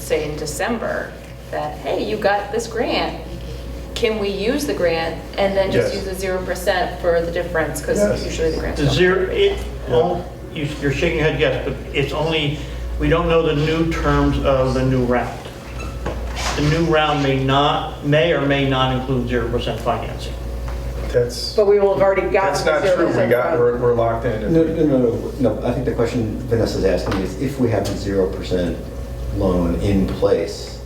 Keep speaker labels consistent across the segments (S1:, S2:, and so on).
S1: say in December, that, hey, you got this grant, can we use the grant? And then just use
S2: Yes.
S1: the zero percent for the difference, because
S2: Yes.
S1: usually the grants
S3: The
S1: don't.
S3: zero, it, oh, you- you're shaking your head, yes, but it's only, we don't know the new terms of the new round. The new round may not, may or may not include 0% financing.
S2: That's,
S4: But we will have already
S2: that's
S4: gotten.
S2: not
S4: the
S2: true. We got,
S4: 0%.
S2: we're we're locked in.
S5: No, no, no, no, no. I think the question Vanessa's asking is if we have a zero percent loan in place,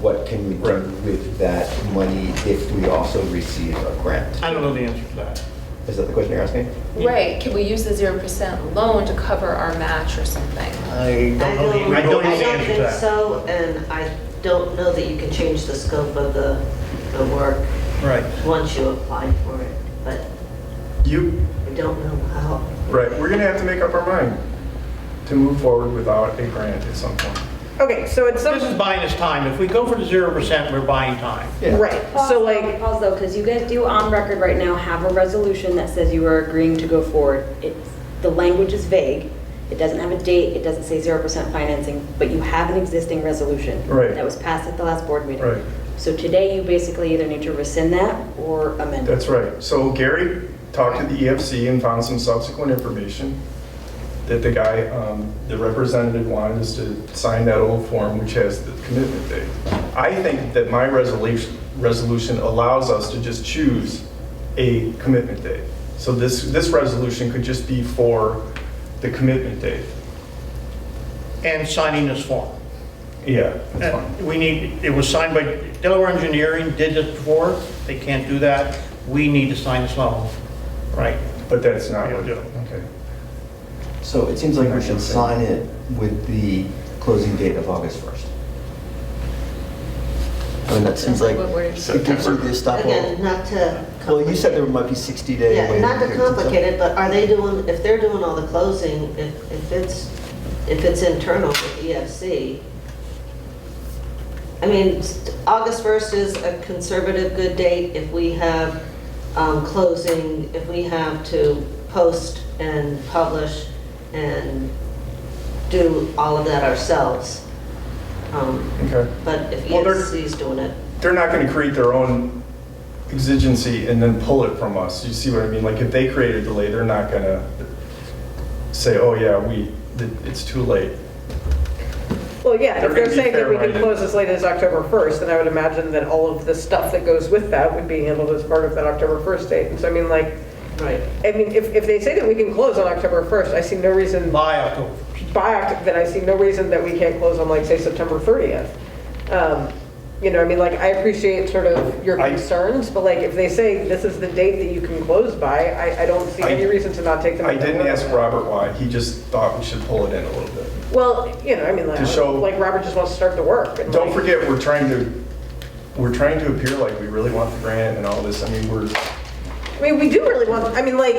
S5: what can we do
S2: Right.
S5: with that money if we also receive a grant?
S3: I don't know the answer to that.
S5: Is that the question you're asking?
S1: Right, can we use the zero percent loan to cover our match or something?
S3: I don't know the, I don't know
S6: I
S3: the
S6: don't
S3: answer to
S6: think
S3: that.
S6: so, and I don't know that you can change the scope of the, the work
S3: Right.
S6: once you apply for it, but
S2: You,
S6: I don't know how.
S2: right, we're going to have to make up our mind to move forward without a grant at some point.
S4: Okay, so at some,
S3: This is buying us time. If we go for the 0%, we're buying time.
S5: Yeah.
S4: right,
S7: Pause
S4: so
S7: though,
S4: like,
S7: Pause though, because you guys do on record right now have a resolution that says you are agreeing to go forward. It's, the language is vague, it doesn't have a date, it doesn't say zero percent financing, but you have an existing resolution.
S2: Right.
S7: That was passed at the last board meeting.
S2: Right.
S7: So today you basically either need to rescind that or amend it.
S2: That's right. So Gary talked to the EFC and found some subsequent information that the guy, um, the representative wanted us to sign that old form which has the commitment date. I think that my resolution, resolution allows us to just choose a commitment date. So this, this resolution could just be for the commitment date.
S3: And signing this form.
S2: Yeah, eh, that's fine.
S3: We need, it was signed by, Delaware Engineering did this before, they can't do that. We need to sign this loan, right?
S2: But that's not what,
S3: Yeah.
S2: okay.
S5: So it seems like we should sign it with the closing date of August 1st. I mean, that seems like
S1: What we're-
S5: it gives you the estoppel.
S6: Again, not to.
S5: Well, you said there
S6: complicate-
S5: might be 60 day
S6: Yeah,
S5: waiting
S6: not to
S5: period or something.
S6: complicate it, but are they doing, if they're doing all the closing, if, if it's, if it's internal with EFC, I mean, st- August 1st is a conservative good date if we have um, closing, if we have to post and publish and do all of that ourselves. Um,
S2: Okay.
S6: But if
S2: Well, they're-
S6: EFC is doing it,
S2: they're not going to create their own exigency and then pull it from us. You see what I mean? Like if they create a delay, they're not going to say, "Oh yeah, we th- it's too late."
S4: well, yeah,
S2: They're
S4: if they're
S2: gonna be
S4: saying that we can
S2: fair-minded.
S4: close as late as October 1st, then I would imagine that all of the stuff that goes with that would be handled as part of that October 1st date. And so I mean, like,
S6: right.
S4: I mean, if, if they say that we can close on October 1st, I see no reason
S3: By October.
S4: by, Oct- then I see no reason that we can't close on like, say, September 30th. Um, You know, I mean, like, I appreciate sort of your
S2: I-
S4: concerns, but like, if they say this is the date that you can close by, I, I don't see
S2: I-
S4: any reason to not take them.
S2: I
S4: at their
S2: didn't
S4: word on
S2: ask
S4: that.
S2: Robert why. He just thought we should pull it in a little bit.
S4: Well, you know, I mean, like,
S2: To show-
S4: like Robert just wants to start the work. and,
S2: Don't
S4: like,
S2: forget, we're trying to we're trying to appear like we really want the grant and all this. I mean, we're
S4: I mean, we do really want, I mean, like,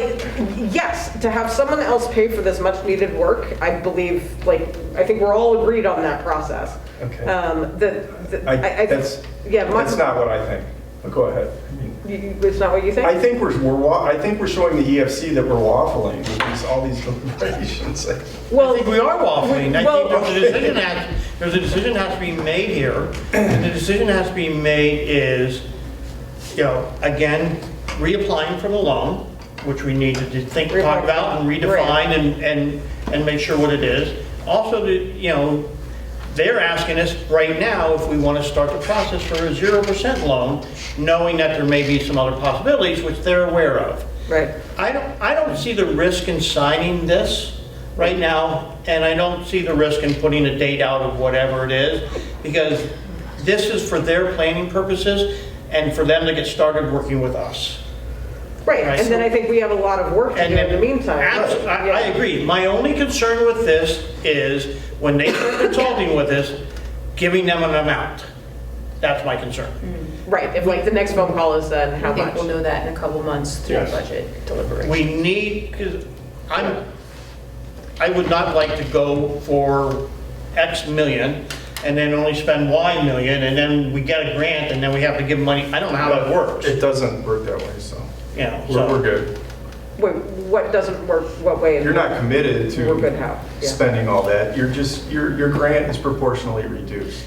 S4: yes, to have someone else pay for this much needed work, I believe, like, I think we're all agreed on that process.
S2: Okay.
S4: Um, The, the-
S2: I,
S4: I, I.
S2: that's
S4: yeah, my-
S2: that's not what I think. But go ahead. I mean,
S4: You- you- It's not what you think?
S2: I think we're, we're, wa- I think we're showing the EFC that we're waffling with these, all these deliberations.
S3: I
S4: Well,
S3: think we are waffling. I
S4: Well-
S3: think there's a decision that, there's a decision that has to be made here. And the decision that has to be made is, you know, again, reapplying for the loan, which we need to think, talk about and redefine and, and, and make sure what it is. Also, the- you know, they're asking us right now if we want to start the process for a 0% loan, knowing that there may be some other possibilities, which they're aware of.
S4: right.
S3: I don't, I don't see the risk in signing this right now, and I don't see the risk in putting a date out of whatever it is, because this is for their planning purposes and for them to get started working with us.
S4: Right,
S3: Right,
S4: and then
S3: so-
S4: I think we have a lot of work to
S3: And
S4: do in the meantime.
S3: Abs-
S4: Right,
S3: I,
S4: yeah.
S3: I agree. My only concern with this is when they start consulting with us, giving them an amount. That's my concern.
S4: Right, if like the next phone call is then how
S1: I think we'll
S4: much?
S1: know that in a couple months through
S2: Yes.
S1: budget deliberation.
S3: We need, because I'm, I would not like to go for X million and then only spend Y million, and then we get a grant, and then we have to give money. I don't know how that works,
S2: It doesn't work that way, so
S3: you know,
S2: we're, we're
S3: so.
S2: good.
S4: Wait, what doesn't work, what way?
S2: You're not committed
S4: We're good
S2: to
S4: how, yeah.
S2: spending all that. You're just, your, your grant is proportionally reduced.